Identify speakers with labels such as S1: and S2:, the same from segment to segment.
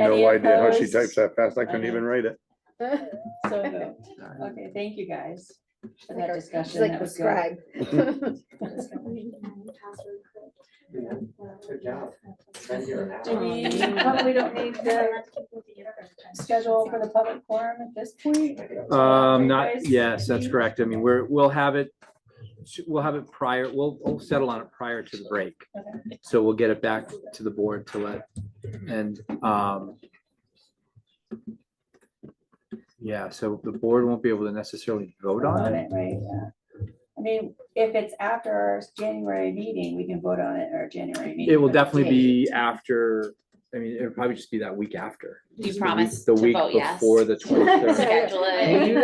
S1: Any
S2: No idea how she
S1: opposed?
S2: types that fast. I couldn't
S1: I know.
S2: even write it.
S1: So moved. Okay, thank you guys for that
S3: She's
S1: discussion.
S3: like
S1: That
S3: the
S1: was good.
S3: scribe.
S4: Good job. Been here an
S1: Do
S4: hour.
S1: we, probably don't need to schedule for the public forum at this point?
S5: Um,
S1: Right,
S5: not,
S1: guys?
S5: yes, that's correct. I mean, we're, we'll have it, we'll have it prior, we'll, we'll settle on it prior to the break.
S1: Okay.
S5: So we'll get it back to the board to let, and, um, yeah, so the board won't be able to necessarily vote on
S1: On
S5: it.
S1: it, right, yeah. I mean, if it's after our January meeting, we can vote on it or January meeting.
S5: It will
S1: but it's
S5: definitely be after, I mean, it'll probably just be that week after.
S6: You
S5: The week-
S6: promise
S5: The
S6: to
S5: week
S6: vote yes.
S5: before the twenty-third.
S6: Schedule
S1: Will you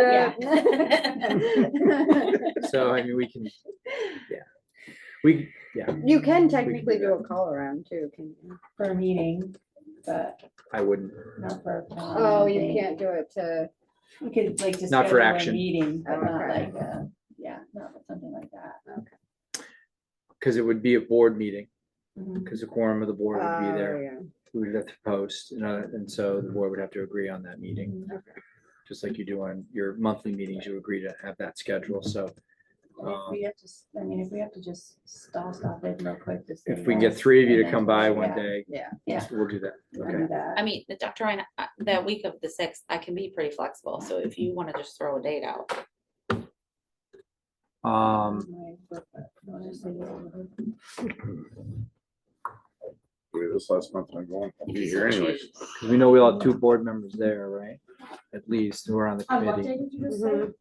S1: do
S6: it.
S5: So, I mean, we can, yeah. We,
S3: You can technically do a call around too, can you?
S1: For a meeting, but
S5: I wouldn't,
S1: not for. a forum, I
S3: Oh,
S1: don't
S3: you
S1: think.
S3: can't do it to,
S1: We could like just.
S5: Not for
S1: schedule a
S5: action.
S1: Meeting, but not
S3: Okay.
S1: like, uh, yeah, not something like that.
S5: because it would be a board meeting.
S3: Mm-hmm.
S1: Mhm.
S5: Because the quorum of the board would be
S3: oh,
S5: there,
S3: yeah.
S5: we would have to post, and, uh, and so the board would have to agree on that meeting. Just like you do on your monthly meetings, you agree to have that schedule, so.
S1: If
S5: um,
S1: we have to, s- I mean, if we have to just stall stop it real quick. to say
S5: If we can get
S1: yes,
S5: three of you
S1: and
S5: to
S1: then-
S5: come by one
S1: yeah,
S5: day.
S3: yeah,
S1: yeah.
S5: We'll do that,
S1: we'll do
S5: okay,
S1: that.
S6: I mean, the Dr. Ryan, uh, the week of the sixth, I can be pretty flexible, so if you wanna just throw a date out.
S5: um,
S2: Boy, This last month I'm going, I'll
S6: if
S2: be
S6: you
S2: here
S6: so
S2: anyways.
S6: choose.
S5: 'cause we know we'll have two board members there, right? At least, who are on the committee,
S3: Mhm.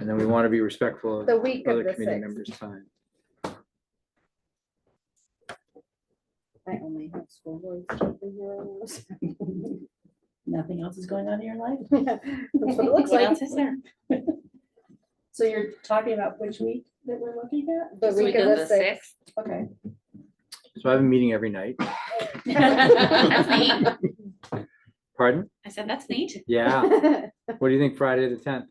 S5: and then we want to be respectful of
S3: The week of
S5: other
S3: the
S5: committee
S3: sixth,
S5: members' time.
S3: I only have school boards. That's
S1: Nothing else is going on in your life?
S3: what it looks
S6: What
S3: like.
S6: else is there?
S1: So you're talking about which week that we're looking at?
S3: The week of the sixth.
S1: Okay.
S5: So I have a meeting every night,
S6: That's neat.
S5: pardon?
S6: I said, that's neat.
S5: Yeah, what do you think Friday the tenth?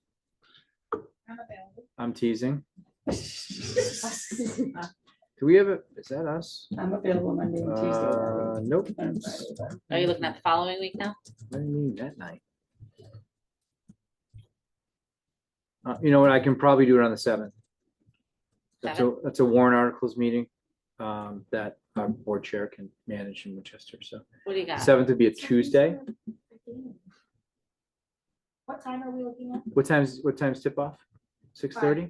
S5: I'm teasing. Do we have a, is that us?
S1: I'm available Monday and Tuesday. that
S5: Uh,
S1: week.
S5: nope.
S1: And Friday, but-
S6: Are you looking at the following week now?
S5: What do you mean that night? Uh, you know what, I can probably do it on the seventh. That's a, that's a warrant articles meeting, um, that our board chair can manage in Winchester, so.
S6: What do you got?
S5: Seventh would be a Tuesday.
S7: What time are we looking at?
S5: What time's, what time's tip off? Six thirty?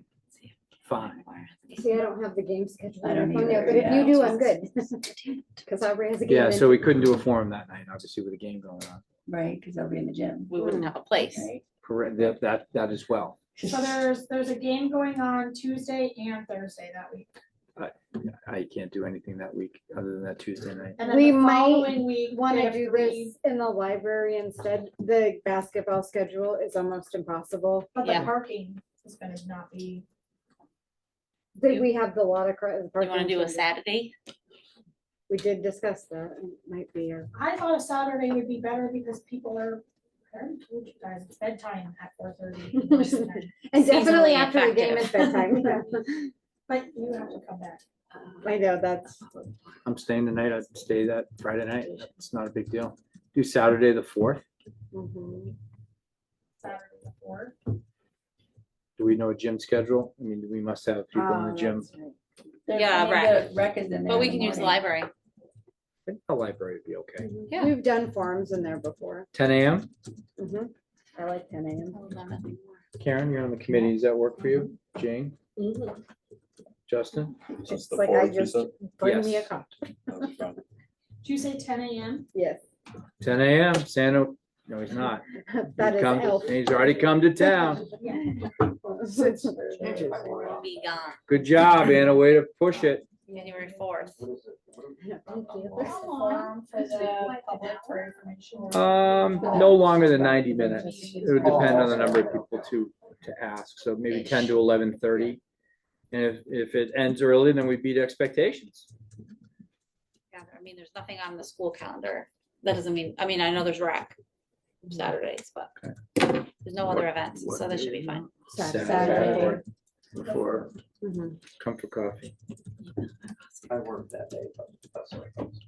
S5: Five.
S3: See, I don't have the game schedule.
S1: I
S3: on
S1: don't
S3: my phone
S1: either,
S3: yet, But if
S1: yeah.
S3: you do, I'm good. Cause Aubrey has a game.
S5: Yeah,
S3: in-
S5: so we couldn't do a forum that night, obviously with a game going on.
S1: Right, because I'll be in the gym.
S6: We wouldn't have a place.
S1: Right.
S5: Correct, that, that, that as well.
S7: So there's, there's a game going on Tuesday and Thursday that week.
S5: I can't do anything that week other than that Tuesday night.
S7: And then
S3: We
S7: the
S3: might
S7: following week. they
S3: Wanna
S7: have
S3: do
S7: three,
S3: this in the library instead. The basketball schedule is almost impossible.
S7: But the
S6: Yeah.
S7: parking is gonna not be,
S3: Did
S6: You-
S3: we have the lot of.
S6: You wanna do a Saturday?
S3: We did discuss that. It might be a
S7: I thought a Saturday would be better because people are, I already told you guys, it's bedtime at four thirty.
S3: And definitely
S6: Seasonally
S3: after the game is bedtime.
S7: But you have to come back.
S3: I know, that's,
S5: I'm staying tonight. I'd stay that Friday night. It's not a big deal. Do Saturday the fourth.
S3: mhm.
S7: Saturday before.
S5: Do we know a gym schedule? I mean, we must have people in the
S3: Oh,
S5: gym.
S3: that's right.
S1: They're
S6: Yeah,
S1: saying the Rec is in there.
S6: But we
S1: in
S6: can use the
S1: morning.
S6: library.
S5: I think the library would be okay.
S6: Yeah.
S3: We've done forums in there before.
S5: Ten AM?
S3: Mhm. I like ten AM.
S5: Karen, you're on the committee. Does that work for you? Jane, Justin?
S3: It's like I just, bring me a
S5: Yes.
S3: cup.
S7: Did you say ten AM?
S3: Yes,
S5: Ten AM, Santa, no, he's not.
S3: that
S5: He's
S3: is
S5: come to-
S3: elf.
S5: He's already come to town.
S7: Yeah.
S6: Be gone,
S5: Good job, Anna. Way to push it.
S6: January fourth.
S7: How long for the public for information?
S5: Um, no longer than ninety minutes. It would depend on the number of people to, to ask, so maybe ten to eleven thirty. And if, if it ends early, then we beat expectations.
S6: Yeah, I mean, there's nothing on the school calendar. That doesn't mean, I mean, I know there's rec Saturdays, but there's no other events, so that should be fine.
S3: Saturday.
S1: Saturday.
S5: Before
S3: Mhm.
S5: comfort coffee.
S4: I worked that day, but that's all right.